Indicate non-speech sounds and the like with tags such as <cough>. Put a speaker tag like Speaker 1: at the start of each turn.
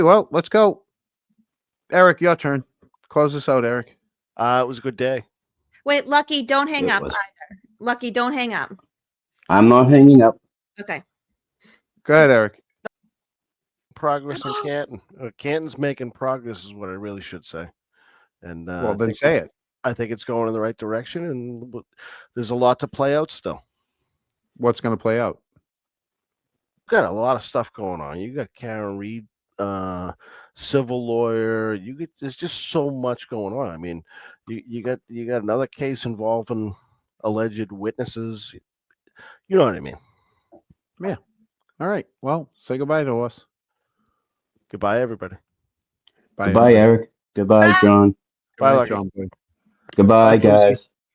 Speaker 1: Well, let's go. Eric, your turn. Close this out, Eric.
Speaker 2: Uh, it was a good day.
Speaker 3: Wait, Lucky, don't hang
Speaker 4: It
Speaker 3: up
Speaker 4: was-
Speaker 3: either. Lucky, don't hang up.
Speaker 4: I'm not hanging up.
Speaker 3: Okay.
Speaker 1: Go ahead, Eric.
Speaker 2: Progress
Speaker 1: <gasps>
Speaker 2: in Canton. Or Canton's making progress is what I really should say. And uh,
Speaker 1: well,
Speaker 2: I
Speaker 1: then
Speaker 2: think
Speaker 1: say
Speaker 2: it's-
Speaker 1: it.
Speaker 2: I think it's going in the right direction, and w- there's a lot to play out still.
Speaker 1: What's going to play out?
Speaker 2: Got a lot of stuff going on. You got Karen Reed, uh, civil lawyer. You get there's just so much going on. I mean, you, you got you got another case involving alleged witnesses. You know what I mean?
Speaker 1: All right. Well, say goodbye to us.
Speaker 2: Goodbye, everybody.
Speaker 1: Bye.
Speaker 4: Goodbye, Eric. Goodbye,
Speaker 3: Bye.
Speaker 4: John.
Speaker 1: Goodbye,
Speaker 2: Bye, Lucky.
Speaker 1: John Boy.
Speaker 2: Bye,
Speaker 4: Goodbye,
Speaker 2: Josie.
Speaker 4: guys.